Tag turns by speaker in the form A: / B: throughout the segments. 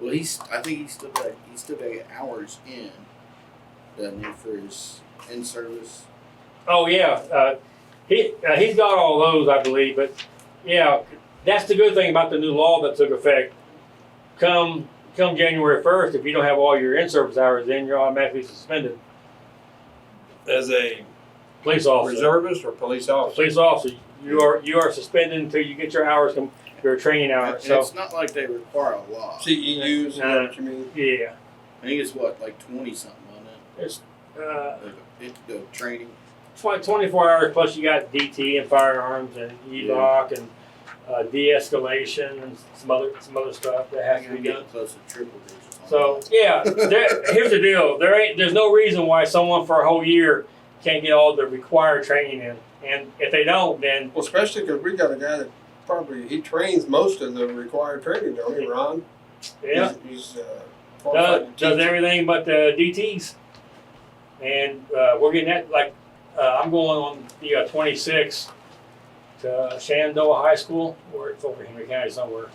A: Well, he's. I think he's still got. He's still got to get hours in, doesn't he, for his in service?
B: Oh yeah, uh, he uh, he's got all those, I believe. But yeah, that's the good thing about the new law that took effect. Come come January first, if you don't have all your in-service hours in, you're automatically suspended.
C: As a
B: Police officer,
C: reservist or police officer?
B: police officer, you are you are suspended until you get your hours, com- your training
A: And
B: hours. So
A: it's not like they require a law.
C: CEUs, is that what you mean?
B: yeah,
A: I think it's what like twenty something on it.
B: uh,
A: Like it the training.
B: tw- 24 hours plus you got DT and firearms and E
A: Yeah.
B: e-lock and uh, de-escalation and some other some other stuff that has to be done.
A: getting close to triple digits. on
B: So yeah, there, here's the deal. There ain't there's no reason why someone for a whole year can't get all the required training in, and if they don't, then
C: Well, especially because we got a guy that probably, he trains most of the required training, don't he, Ron?
B: yeah,
C: He's, he's, uh,
B: does,
C: qualified to
B: does
C: teach.
B: everything but the DTS. And uh, we're getting that like uh, I'm going on the uh, 26 to Shenandoah High School, or it's over Henry County somewhere.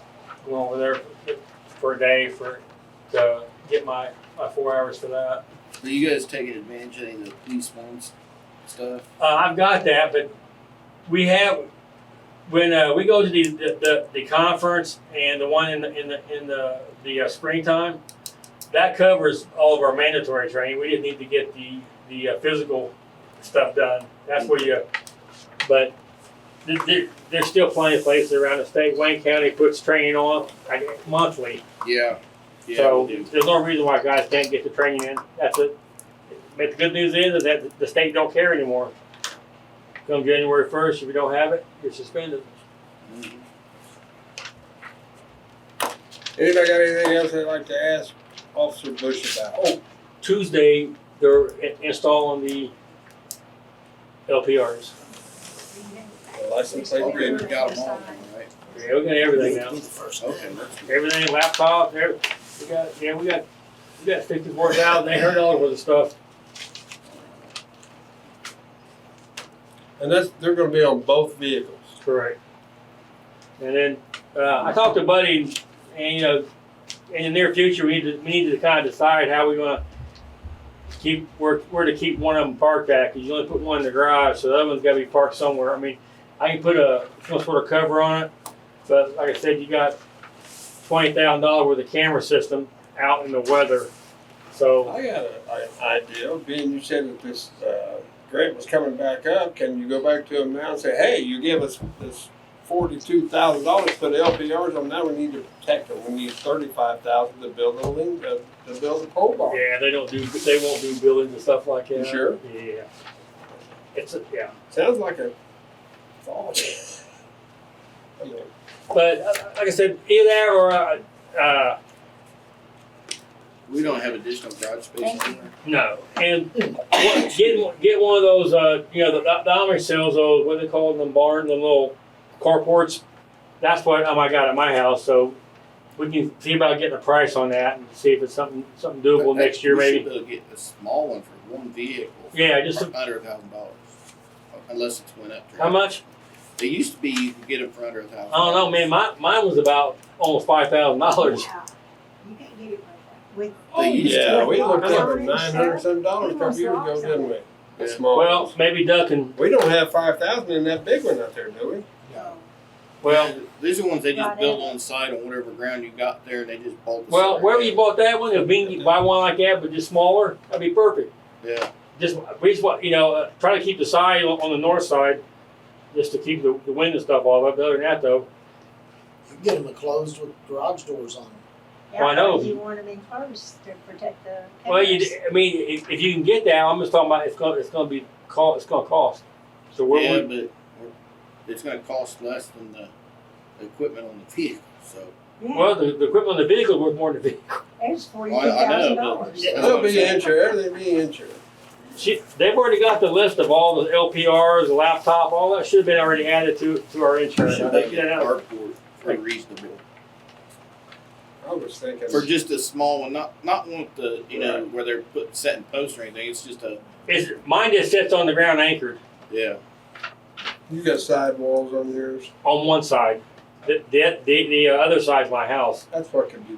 B: I'm going over there for a day for to get my my four hours for
A: that.
B: that.
A: Are you guys taking advantage of any of the police ones stuff?
B: Uh, I've got that, but we have when uh, we go to the, the, the, the conference and the one in the in the in the, the uh, springtime, that covers all of our mandatory training. We didn't need to get the the uh, physical stuff done. That's where you. But th- th- there's still plenty of places around the state. Wayne County puts training on I guess, monthly,
A: Yeah. Yeah.
B: so
A: we do.
B: there's no reason why guys can't get the training in. That's it. But the good news is, is that the state don't care anymore. Come January first, if you don't have it, you're suspended.
A: Mhm.
C: Anybody got anything else they'd like to ask Officer Bush about?
B: Oh, Tuesday, they're i- installing the LPRs.
C: License plate
A: Okay, we
C: reader.
A: got them all, right?
B: Yeah, we got everything now.
A: Okay, that's good.
B: Everything, laptops, every, we got, yeah, we got, we got fifty-four thousand, eight hundred dollars worth of stuff.
C: And that's, they're gonna be on both vehicles.
B: Correct. And then, uh, I talked to Buddy, and, you know, in the near future, we need to, we need to kind of decide how we're gonna keep, where, where to keep one of them parked at, cause you only put one in the garage, so the other one's gotta be parked somewhere. I mean, I can put a, some sort of cover on it, but like I said, you got twenty thousand dollar worth of camera system out in the weather. So,
C: I got an idea, being you said that this uh, grant was coming back up, can you go back to them now and say, hey, you gave us this forty-two thousand dollars for the LPRs, and now we need to protect them, we need thirty-five thousand to build a link, uh, to build a pole barn.
B: yeah, they don't do, they won't do buildings and stuff like that.
C: You sure?
B: Yeah. It's, a- yeah.
C: Sounds like a thought. Okay.
B: But uh, like I said, either that or uh, uh,
A: We don't have additional garage space anywhere.
B: no. And what, get one- get one of those. Uh, you know, the, the, the Omri sells those. What do they call them? Barn, the little carports. That's what um, I got at my house. So we can see about getting a price on that and see if it's something something doable
A: But that-
B: next year,
A: we
B: maybe.
A: should be able to get a small one for one vehicle. for
B: Yeah, just a-
A: under a thousand dollars, unless it's went up.
B: How much?
A: It used to be you could get it for under a thousand.
B: I don't know, man. My, mine was about almost five thousand dollars.
D: Yeah. You can't get it like that.
A: They used to.
C: Yeah, we looked
A: Yeah.
C: up at nine hundred some dollars a couple years ago, didn't we? The small
B: Well,
C: ones.
B: maybe ducking.
C: We don't have five thousand in that big one out there, do we?
D: No.
B: Well,
A: these are ones they just
D: Right
A: built
D: in.
A: on site on whatever ground you got there, and they just bolted.
B: well,
A: straight
B: wherever
A: in.
B: you bought that one, if we can get- buy one like that, but just smaller, that'd be perfect.
A: Yeah,
B: just we just want you know uh, try to keep the side on on the north side, just to keep the, the wind and stuff off. But other than that, though,
E: You get them enclosed with garage doors on them.
B: Well, I know.
D: You want them enclosed to protect the.
B: well, you
D: cameras.
B: I mean if, if you can get that, I'm just talking about it's gonna it's gonna be cost it's gonna cost. So we're,
A: yeah,
B: we're-
A: but we're- it's going to cost less than the equipment on the vehicle. So
D: Yeah,
B: well the, the equipment on the vehicle is worth more than the vehicle.
D: it's forty-two
A: Well, I know,
D: thousand
A: but-
D: dollars.
A: Yeah.
C: It'll be insured, everything be insured.
B: She, they've already got the list of all the LPRs, the laptop, all that should have been already added to to our insurance.
A: should they get an carport for reasonable
C: I was thinking.
A: for just a small one, not not one with the you know where they're put setting posts or anything. It's just a
B: It's, mine just sits on the ground anchored
A: yeah.
C: You got sidewalls on yours.
B: on one side. The the the, the other side's my house.
C: That's what could be